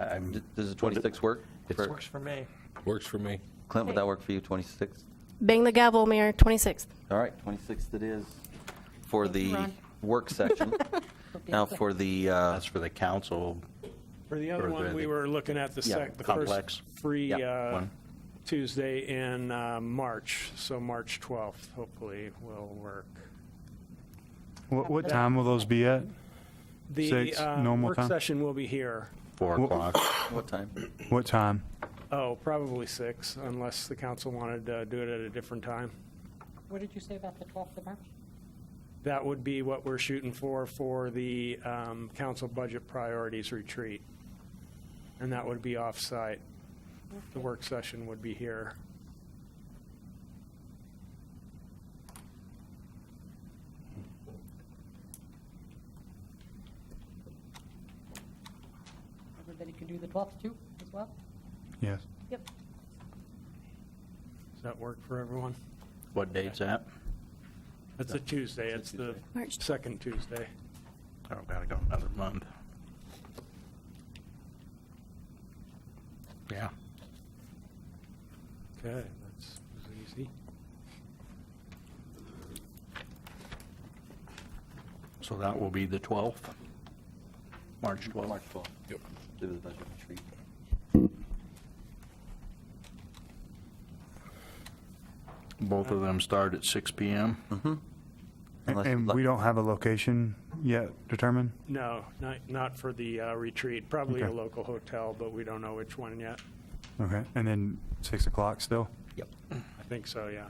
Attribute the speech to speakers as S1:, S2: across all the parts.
S1: I'm,
S2: Does the 26th work?
S1: It
S2: for-
S3: Works for me.
S4: Works for me.
S2: Clint, would that work for you, 26th?
S5: Bang the gavel, Mayor, 26th.
S2: All right, 26th it is for
S6: Thank you,
S2: the
S6: Ron.
S2: work session. Now for the, uh,
S1: that's for the council.
S3: For the
S1: Or
S3: other
S1: the-
S3: one, we were looking at the
S2: Yeah,
S3: sec, the
S1: complex.
S3: first free
S2: Yeah,
S3: uh,
S1: one.
S3: Tuesday in uh, March, so March 12th, hopefully will work.
S7: What, what time will those be at?
S3: The
S7: Six,
S3: uh,
S7: normal
S3: work
S7: time?
S3: session will be here.
S1: Four o'clock.
S2: what time?
S7: What time?
S3: Oh, probably six, unless the council wanted to do it at a different time.
S6: What did you say about the 12th of March?
S3: That would be what we're shooting for, for the um, council budget priorities retreat. And that would be off-site. The work session would be here.
S6: Everybody could do the 12th too, as well?
S7: Yes.
S6: Yep.
S3: Does that work for everyone?
S1: What date's that?
S3: It's a Tuesday, it's the
S5: March
S3: second Tuesday.
S1: Oh, gotta go another month. Yeah.
S3: Okay, that's was easy.
S1: So that will be the 12th, March 12th.
S2: March 12th. Yep. Do the budget retreat.
S1: Both of them start at 6 PM.
S2: Hmm. Unless-
S7: And we don't have a location yet determined?
S3: No, not, not for the uh, retreat, probably a
S7: Okay.
S3: local hotel, but we don't know which one yet.
S7: Okay, and then 6 o'clock still?
S2: Yep.
S3: I think so, yeah.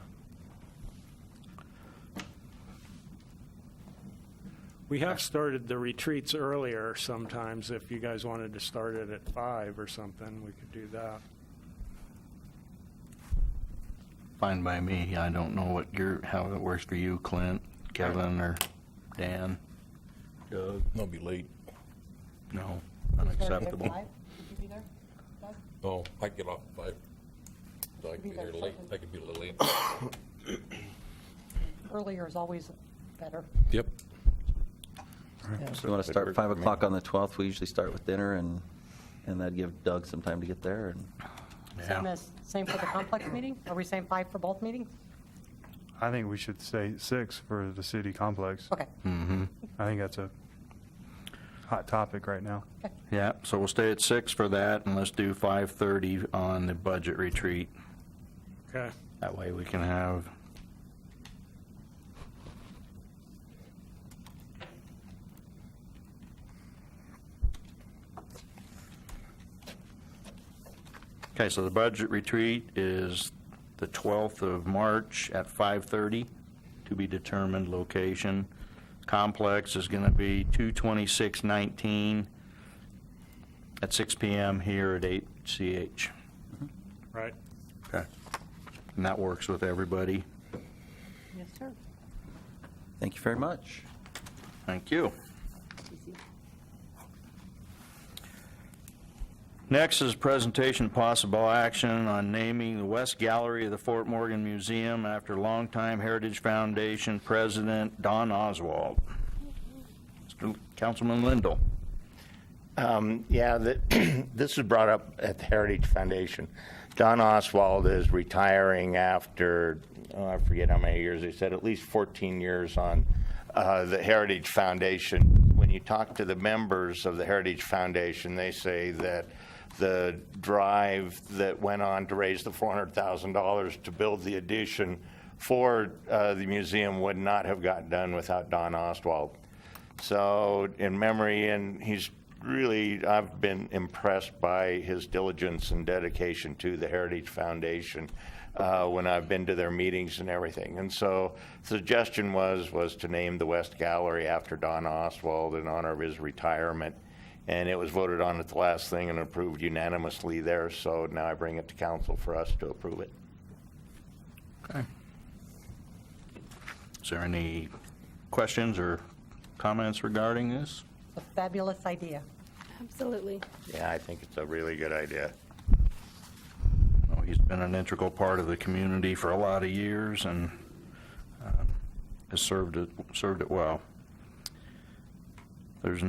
S3: We have started the retreats earlier sometimes. If you guys wanted to start it at five or something, we could do that.
S1: Fine by me. I don't know what your, how it works for you, Clint, Kevin, or Dan. Doug?
S4: I'll Uh, be late.
S1: No,
S6: Start at
S1: unacceptable.
S6: five? Would you be there? Doug?
S4: Oh, I can get off at five. So I can be
S6: Be there
S4: here late.
S6: something.
S4: I can be a little late.
S6: Earlier is always better.
S4: Yep.
S2: You want to start 5 o'clock on the 12th? We usually start with dinner and, and that'd give Doug some time to get there and
S6: Same
S1: Yeah,
S6: as, same for the complex meeting? Are we saying five for both meetings?
S7: I think we should say 6 for the city complex.
S6: Okay.
S1: Mm-hmm.
S7: I think that's a hot topic right now.
S1: yeah, so we'll stay at 6 for that, and let's do 5:30 on the budget retreat.
S3: Okay.
S1: That way we can have Okay, so the budget retreat is the 12th of March at 5:30, to be determined location. Complex is going to be 22619 at 6 PM here at 8CH.
S3: Right.
S1: Okay. And that works with everybody.
S6: Yes, sir.
S2: thank you very much.
S1: Thank you. Next is presentation possible action on naming the West Gallery of the Fort Morgan Museum after longtime Heritage Foundation President Don Oswald. Mr. Councilman Lindell.
S8: Um, Yeah, the- this was brought up at the Heritage Foundation. Don Oswald is retiring after, oh, I forget how many years, they said at least 14 years on uh, the Heritage Foundation. When you talk to the members of the Heritage Foundation, they say that the drive that went on to raise the $400,000 to build the addition for uh, the museum would not have got done without Don Oswald. So in memory, and he's really, I've been impressed by his diligence and dedication to the Heritage Foundation uh, when I've been to their meetings and everything. And so suggestion was, was to name the West Gallery after Don Oswald in honor of his retirement. And it was voted on at the last thing and approved unanimously there. So now I bring it to council for us to approve it.
S1: Is there any questions or comments regarding this?
S6: It's a fabulous idea.
S5: Absolutely.
S8: Yeah, I think it's a really good idea.
S1: know, he's been an integral part of the community for a lot of years and uh, um, has served it, served it well. There's